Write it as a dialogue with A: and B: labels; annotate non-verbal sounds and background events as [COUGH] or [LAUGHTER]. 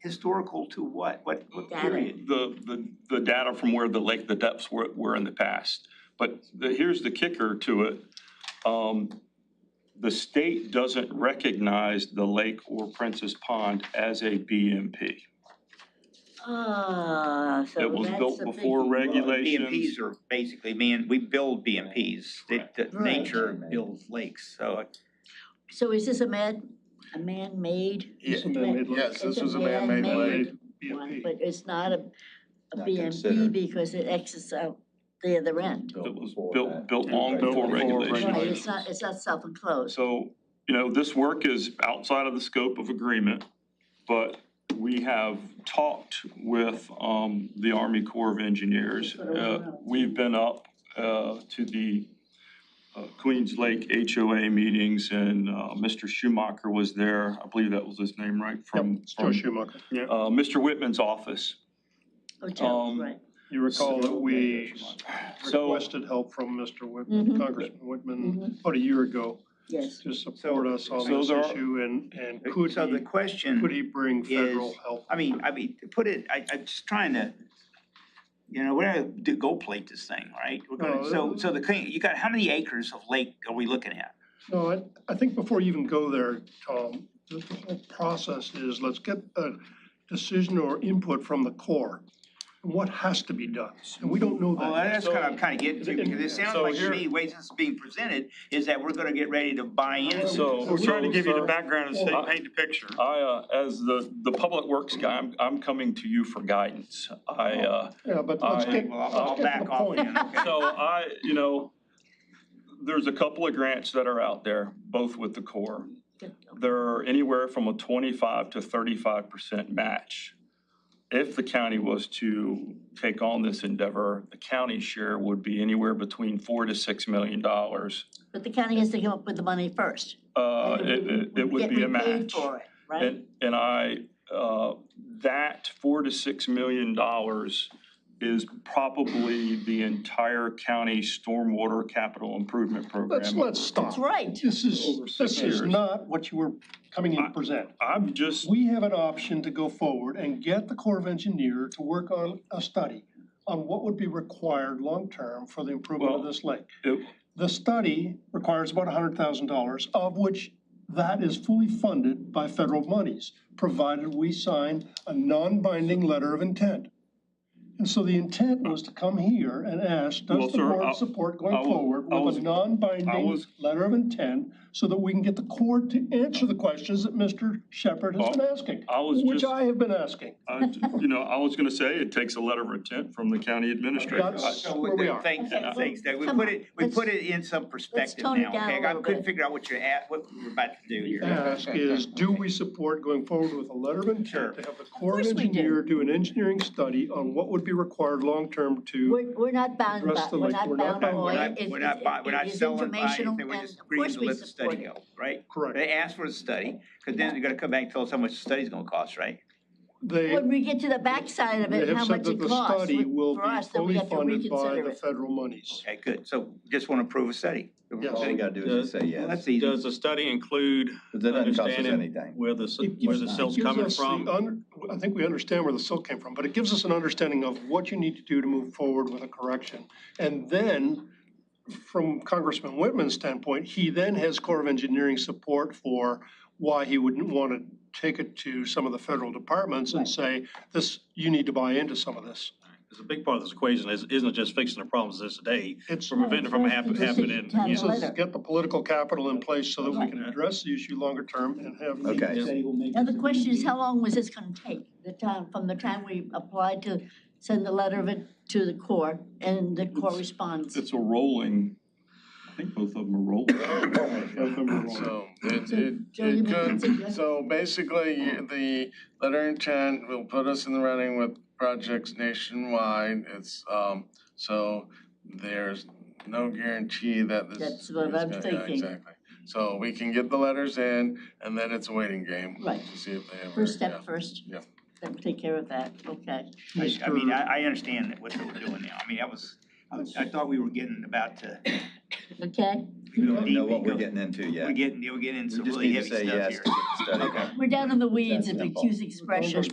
A: historical to what? What, what
B: Data.
A: period?
C: the, the, the data from where the lake, the depths were, were in the past. But the, here's the kicker to it. Um, the state doesn't recognize the lake or Princess Pond as a BMP.
B: Ah, so
C: It was
B: that's
C: built
B: the
C: before
B: thinking.
C: regulations.
D: BMPs are basically, man, we build BMPs. It- that
B: Right.
D: Nature builds lakes, so
B: So is this a man, a man-made?
C: It's a
E: Yes,
B: It's
E: this was a man-made lake.
B: one, But it's not a, a
F: Not
B: BMP
F: considered.
B: because it exits out the other end.
C: It was
F: before
C: built,
F: that.
C: built long
E: Built
C: before
E: before
C: regulations.
B: Right, it's not, it's not self-enclosed.
C: So, you know, this work is outside of the scope of agreement, but we have talked with um, the Army Corps of Engineers. Uh, We've been up uh, to the uh, Queens Lake HOA meetings, and uh, Mr. Schumacher was there. I believe that was his name, right? From
E: It's Joe
C: from,
E: Schumacher. Yeah,
C: uh, Mr. Whitman's office.
B: Hotel,
C: um,
B: right.
E: you recall that we
C: So-
E: requested help from Mr.
B: Mhm.
E: Whitman, Congressman Whitman, about a year ago
B: Yes,
E: to support us on
C: So
E: this
C: there are-
E: issue and, and
D: uh,
E: could
D: so the
E: he,
D: question.
E: could he bring federal
D: is-
E: help?
D: I mean, I mean, to put it, I, I'm just trying to, you know, we're gonna do gold plate this thing, right? We're gonna, so, so the, thing- you got, how many acres of lake are we looking at?
E: No, I, I think before you even go there, Tom, the the whole process is let's get a decision or input from the Corps. on What has to be done, and we don't know
D: Well,
E: that.
D: that's kind of, kind of getting to, because it sounds
C: So
D: like to
C: here-
D: me, the way this is being presented, is that we're gonna get ready to buy in.
C: So-
E: We're trying to give you the
D: background
E: and
C: say-
D: paint the picture.
C: I, uh, as the, the Public Works guy, I'm, I'm coming to you for guidance. I, uh,
E: Yeah, but let's
C: I-
E: get,
D: Well, I'll- I'll
E: let's get to
D: back
E: the
D: off
E: point.
D: then, okay?
C: So I, you know, there's a couple of grants that are out there, both with the Corps.
B: good.
C: They're anywhere from a twenty-five to thirty-five percent match. If the county was to take on this endeavor, the county share would be anywhere between four to six million dollars.
B: but the county has to come up with the money first.
C: Uh,
B: and
C: it, it- it would
B: get
C: be a
B: repaid
C: match.
B: for it, Right?
C: And, and I, uh, that four to six million dollars is probably the entire county stormwater capital improvement program.
E: Let's, let's stop.
B: That's right.
E: This
C: Over
E: is,
C: six
E: this is
C: years.
E: not what you were coming in to present.
C: I'm just,
E: We have an option to go forward and get the Corps of Engineer to work on a study on what would be required long-term for the improvement of
C: Well-
E: this lake.
C: it-
E: The study requires about hundred thousand dollars, of which that is fully funded by federal monies, provided we sign a non-binding letter of intent. And so the intent was to come here and ask,
C: Well,
E: does the
C: sir, I-
E: board support
C: I
E: going
C: was-
E: forward
C: I
E: with
C: was-
E: a
C: I
E: non-binding
C: was-
E: letter of intent so that we can get the Corps to answer the questions that Mr. Shepherd has been asking?
C: Oh, I was
E: Which
C: just-
E: I have been asking.
C: I- you know, I was gonna say, it takes a letter of intent from the county administrator.
E: That's-
C: I-
D: So
E: where
D: with
E: we
D: the
E: are.
D: things
B: Okay,
D: and things that we
B: come
D: put
B: on,
D: it, we
B: let's-
D: put it in some perspective
B: tone it
D: now,
B: down a
D: okay? I
B: little
D: couldn't
B: bit.
D: figure out what you're at, what we were about to do here.
E: ask is, do we support going forward with a letter of
D: Sure.
E: intent to have the Corps of
B: course we do.
E: Engineer do an engineering study on what would be required long-term to,
B: We're, we're not bound by,
E: Address the
B: we're
E: lake.
B: not
E: We're
B: bound
E: not
B: by
E: bound.
D: We're
B: oil.
D: not,
B: It-
D: we're
B: it-
D: not buy,
B: it-
D: we're
B: it
D: not
B: is
D: selling by
B: informational
D: anything, we're
B: and
D: just
B: of
D: agreeing
B: course
D: to
B: we
D: let the study
B: support it.
D: go, right?
E: correct?
D: They asked for the study, because then they're gonna come back and tell us how much the study's gonna cost, right?
E: They,
B: When we get to the backside of
E: they
B: it, and
E: have
B: how
E: said
B: much
E: that
B: it
E: the
B: costs
E: study will
B: for
E: be
B: us, then we
E: fully
B: have to
E: funded by
B: reconsider
E: the
B: it.
E: federal monies.
D: Okay, good, so just wanna approve a study.
E: Yes.
F: All we gotta do is just say
D: Well,
F: yes,
D: that's easy.
G: Does the study include
F: because that doesn't cost us
G: understanding
F: anything.
G: where the,
E: It
G: where
E: gives-
G: the
E: it
G: silt's
E: gives
G: coming
E: us the
G: from?
E: un- I think we understand where the silt came from, but it gives us an understanding of what you need to do to move forward with a correction. And then, from Congressman Whitman's standpoint, he then has Corps of Engineering support for why he wouldn't want to take it to some of the federal departments and say, this, you need to buy into some of this.
G: Because a big part of this equation is, isn't just fixing the problems of this day,
E: It's,
G: from preventing it from
B: it's
G: happen-
B: the
G: happening.
B: decision
G: again.
E: it's
B: Letter.
E: just get the political capital in place so that we can address the issue longer term and have. the-
F: Okay.
B: Now, the question is, how long was this gonna take? The time, from the time we applied to send the letter of it to the Corps, and the Corps responds?
C: It's a rolling, I think both of them are
E: [COUGHS]
C: rolling.
H: So it,
B: So,
H: it,
B: Joe, you
H: it
B: may consider that.
H: could, so basically, you- the letter intent will put us in the running with projects nationwide. It's, um, so there's no guarantee that this.
B: That's what
H: is
B: I'm
H: gonna- yeah,
B: thinking.
H: Exactly. So we can get the letters in and then it's a waiting game.
B: Right.
H: To see if they ever.
B: First
H: yeah.
B: step first?
H: Yeah.
B: Then take care of that, okay.
D: I, I mean, I, I understand that what they were doing now, I mean, I was, I, I thought we were getting about to.
B: Okay,
F: We don't know what we're getting into yet.
D: We're getting, we're getting
F: We
D: into some
F: just
D: really
F: need to
D: heavy stuff
F: say
D: here.
F: yes to get the study.
D: Okay.
B: we're down in the weeds
F: That's
B: of
F: simple.
B: accused expression.